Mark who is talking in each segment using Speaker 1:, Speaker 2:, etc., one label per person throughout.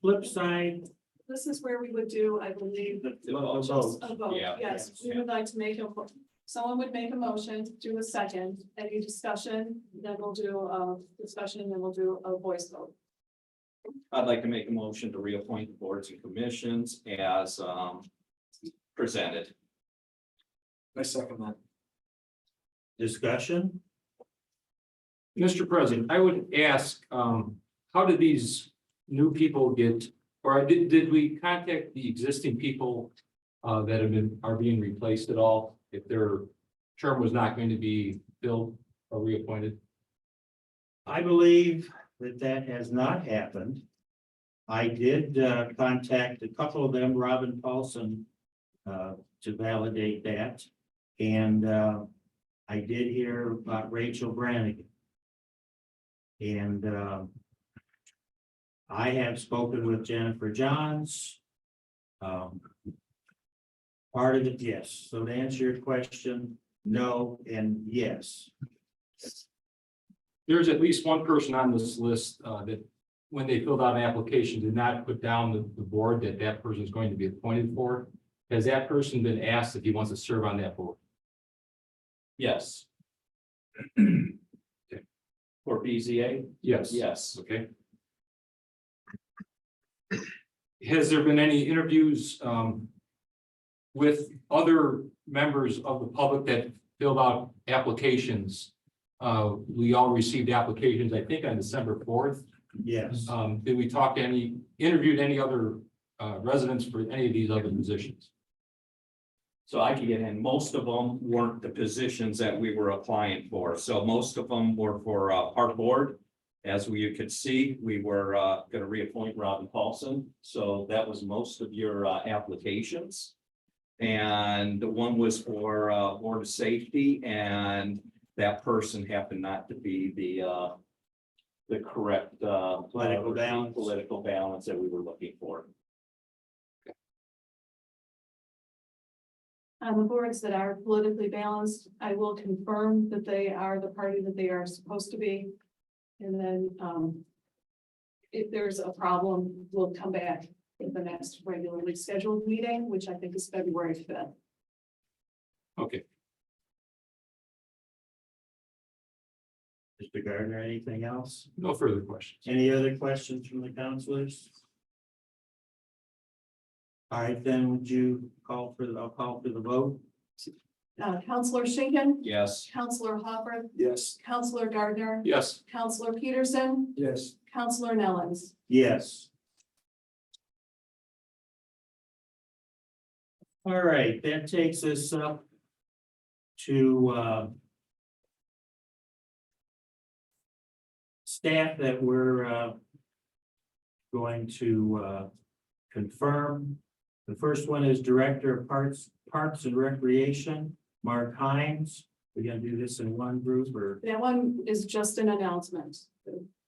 Speaker 1: flip side,
Speaker 2: This is where we would do, I believe,
Speaker 1: well,
Speaker 2: just
Speaker 1: vote.
Speaker 2: a vote,
Speaker 3: Yeah.
Speaker 2: yes, we would like to make a, someone would make a motion, do a second, any discussion, then we'll do a discussion, and then we'll do a voice vote.
Speaker 3: I'd like to make a motion to reappoint the boards and commissions as um presented.
Speaker 4: I second that.
Speaker 1: discussion.
Speaker 4: Mr. President, I would ask, um, how did these new people get, or did, did we contact the existing people? Uh, that have been, are being replaced at all, if their term was not going to be filled or reappointed?
Speaker 1: I believe that that has not happened. I did uh, contact a couple of them, Robin Paulson, uh, to validate that. And uh, I did hear about Rachel Brannigan. And um, I have spoken with Jennifer Johns. Um, Part of it, yes. So to answer your question, no and yes.
Speaker 4: There's at least one person on this list, uh, that when they filled out an application, did not put down the, the board that that person is going to be appointed for. Has that person been asked if he wants to serve on that board?
Speaker 3: Yes. For BZA?
Speaker 4: Yes.
Speaker 3: Yes.
Speaker 4: Okay. Has there been any interviews um, with other members of the public that filled out applications? Uh, we all received applications, I think, on December fourth.
Speaker 1: Yes.
Speaker 4: Um, did we talk to any, interviewed any other uh, residents for any of these other positions?
Speaker 3: So I could get in. Most of them weren't the positions that we were applying for. So most of them were for uh, our board. As we could see, we were uh, going to reappoint Robin Paulson. So that was most of your uh, applications. And the one was for uh, Board of Safety and that person happened not to be the uh, the correct uh,
Speaker 1: Political balance.
Speaker 3: Political balance that we were looking for.
Speaker 2: On the boards that are politically balanced, I will confirm that they are the party that they are supposed to be. And then, um, if there's a problem, we'll come back at the next regularly scheduled meeting, which I think is February fifth.
Speaker 4: Okay,
Speaker 1: Mr. Gardner, anything else?
Speaker 4: no further questions.
Speaker 1: Any other questions from the counselors? All right, then would you call for, the? I'll call for the vote?
Speaker 2: Uh, Counselor Schinkin,
Speaker 3: Yes.
Speaker 2: Counselor Hopper,
Speaker 4: Yes.
Speaker 2: Counselor Gardner,
Speaker 4: Yes.
Speaker 2: Counselor Peterson,
Speaker 4: Yes.
Speaker 2: Counselor Nellens.
Speaker 1: Yes. All right, that takes us up to uh, staff that we're uh, going to uh, confirm. The first one is Director of Parks, Parks and Recreation, Mark Hines. We're gonna do this in one group or,
Speaker 2: That one is just an announcement.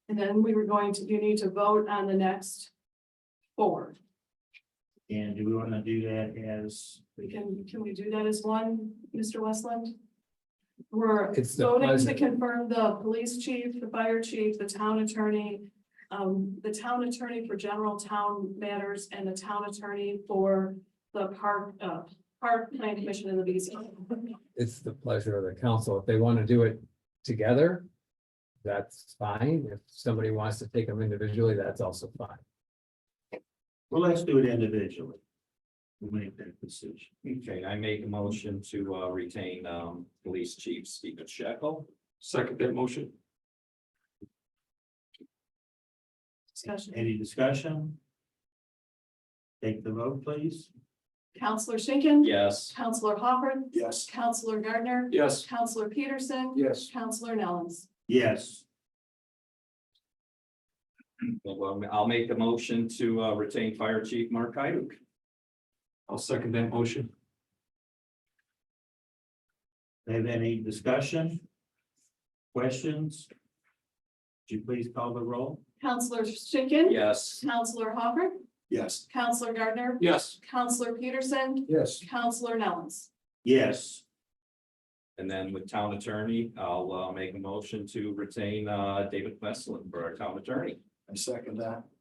Speaker 2: And then we were going to, you need to vote on the next four.
Speaker 1: and do we want to do that as?
Speaker 2: We can, can we do that as one, Mr. Westland? We're
Speaker 5: It's the
Speaker 2: voting to
Speaker 5: pleasure.
Speaker 2: confirm the police chief, the fire chief, the town attorney, um, the town attorney for general town matters and the town attorney for the park, uh, park plan commission and the B C.
Speaker 5: It's the pleasure of the council. If they want to do it together, that's fine. If somebody wants to take them individually, that's also fine.
Speaker 1: Well, let's do it individually. We'll make that decision.
Speaker 3: Okay, I make a motion to uh, retain um, Police Chief Stephen Shekel.
Speaker 4: Second that motion?
Speaker 2: Discussion.
Speaker 1: Any discussion? Take the vote, please.
Speaker 2: Counselor Schinkin.
Speaker 3: Yes.
Speaker 2: Counselor Hopper.
Speaker 4: Yes.
Speaker 2: Counselor Gardner.
Speaker 4: Yes.
Speaker 2: Counselor Peterson.
Speaker 4: Yes.
Speaker 2: Counselor Nellens.
Speaker 1: Yes,
Speaker 3: Well, I'll make a motion to uh, retain Fire Chief Mark Hyduk.
Speaker 4: I'll second that motion.
Speaker 1: have any discussion? Questions? Would you please call the roll?
Speaker 2: Counselor Schinkin.
Speaker 3: Yes.
Speaker 2: Counselor Hopper.
Speaker 4: Yes.
Speaker 2: Counselor Gardner.
Speaker 4: Yes.
Speaker 2: Counselor Peterson.
Speaker 4: Yes.
Speaker 2: Counselor Nellens.
Speaker 1: Yes,
Speaker 3: And then with Town Attorney, I'll uh, make a motion to retain uh, David Westland for our Town Attorney.
Speaker 4: I second that.